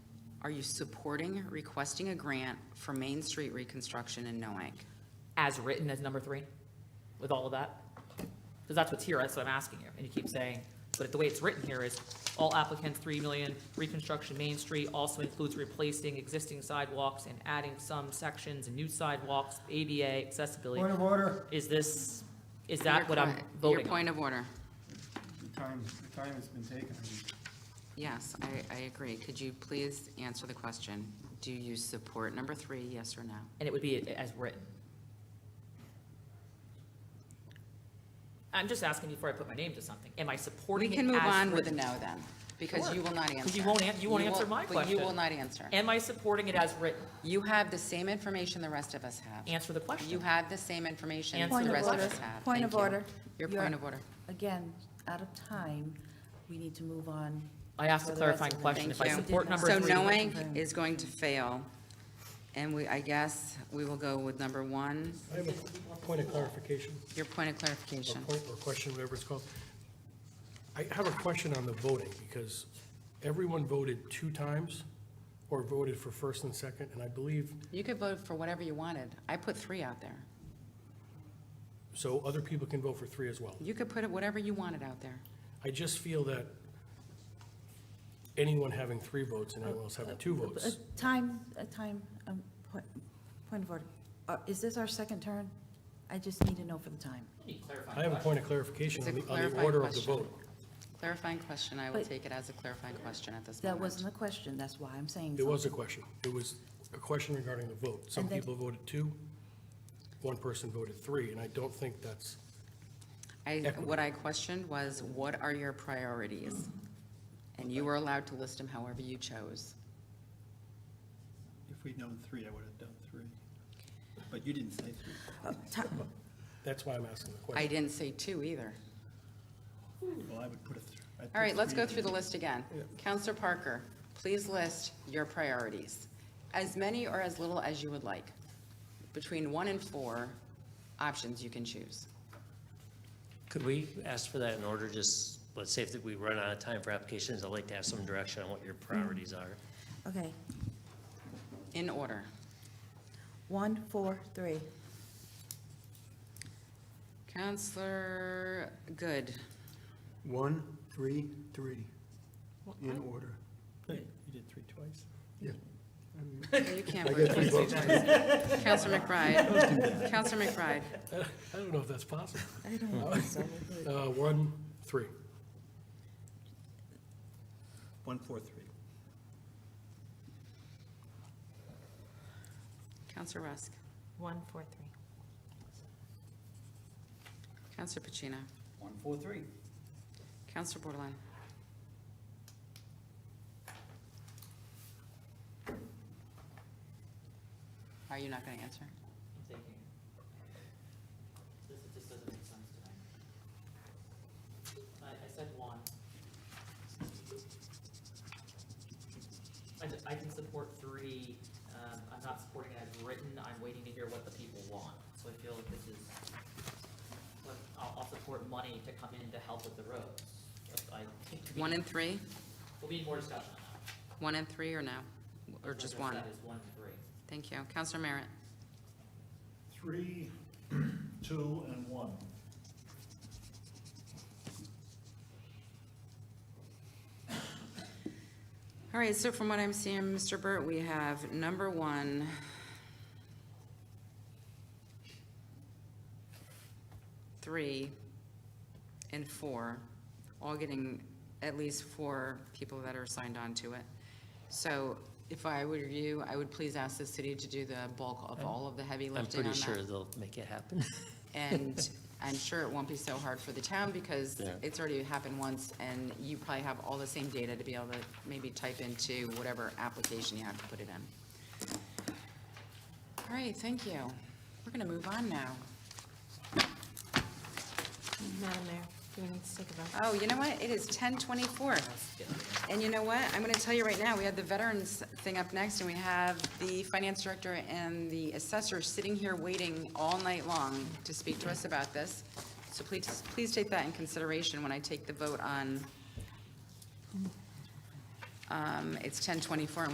Are you supporting requesting a grant for Main Street reconstruction in Noank? as written as number three, with all of that? Because that's what's here, that's what I'm asking you, and you keep saying, but the way it's written here is, all applicants, three million, reconstruction Main Street also includes replacing existing sidewalks and adding some sections and new sidewalks, ADA accessibility. Point of order, Is this, is that Your what I'm point- voting Your on? point of order. the time, the time has been taken. I mean, Yes, I, I agree. Could you please answer the question? Do you support number three, yes or no? And it would be as written. I'm just asking before I put my name to something, am I We supporting it as can move on with a written? no then, because Sure. you will not answer. Because you won't an- you won't answer my But you will question. not answer. Am I supporting it as written? You have the same information the rest of us have. Answer the question. You have the same information Answer the the rest of question. us have. Point Thank of you. order. Your You're- point of order. Again, out of time, we need to move on. I asked a for the rest clarifying of the- question. Thank If I you. support number So three- knowing is going to fail, and we, I guess, we will go with number one, I have a point of clarification, your point of or clarification. point, or question, whatever it's called. I have a question on the voting, because everyone voted two times, or voted for first and second, and I believe, You could vote for whatever you wanted. I put three out there. so other people can vote for three as well. You could put it whatever you wanted out there. I just feel that anyone having three votes and anyone else having two A Uh, votes, Uh, time, a time, um, point, point of order. Uh, Is this our second turn? I just need to know for the time. I have a point of clarification It's a on the, on the clarifying order of the question. vote. Clarifying question, I will But- take it as a clarifying question at this That moment. wasn't a question, that's why I'm saying. It was a something. question. It was a question regarding the vote. Some And then- people voted two, one person voted three, and I don't think that's, I, equitable. what I questioned was, what are your priorities? And you were allowed to list them however you chose. If we'd known three, I would have done three. But you didn't say three. Uh, that's why I'm asking the I question. didn't say two either. Well, I would put a three. I'd All right, put let's three go through the in. list again. Counselor Parker, please list your priorities, as many or as little as you would like. Between one and four options you can choose. Could we ask for that in order, just, let's say if we run out of time for applications, I'd like to have some direction on what your priorities are. Mm-hmm. Okay, In order, one, four, three. Counselor Good, One, three, three, in order. You did three twice. Yeah. you can't vote twice. Counselor McBride, Counselor McBride, I don't know if that's possible. I don't think so. Uh, One, three. One, four, three. Counselor Rusk, One, four, three. Counselor Pacino, One, four, three. Counselor Borderline. Are you not going to answer? This just doesn't make sense to me. I, I said one. I, ju- I can support three, um, I'm not supporting it as written, I'm waiting to hear what the people want. So I feel like this is, but I'll, I'll support money to come in to help with the roads. But I think we- One and three? We'll need more discussion on One and three or no? that. Or just Like one? I said, it's one and three. Thank you. Counselor Merritt? Three, two, and one. All right, so from what I'm seeing, Mr. Burt, we have number one. Three and four, all getting at least four people that are signed on to it. So if I were you, I would please ask the city to do the bulk of all of the heavy I'm lifting on that. pretty sure they'll make it happen. And I'm sure it won't be so hard for the town because Yeah. it's already happened once and you probably have all the same data to be able to maybe type into whatever application you have to put it in. All right, thank you. We're gonna move on now. Madam Mayor, do we need to take a vote? Oh, you know what? It is ten twenty-four. And you know what? I'm gonna tell you right now, we have the veterans thing up next and we have the finance director and the assessor sitting here waiting all night long to speak to us about this. So please, please take that in consideration when I take the vote on, um, it's ten twenty-four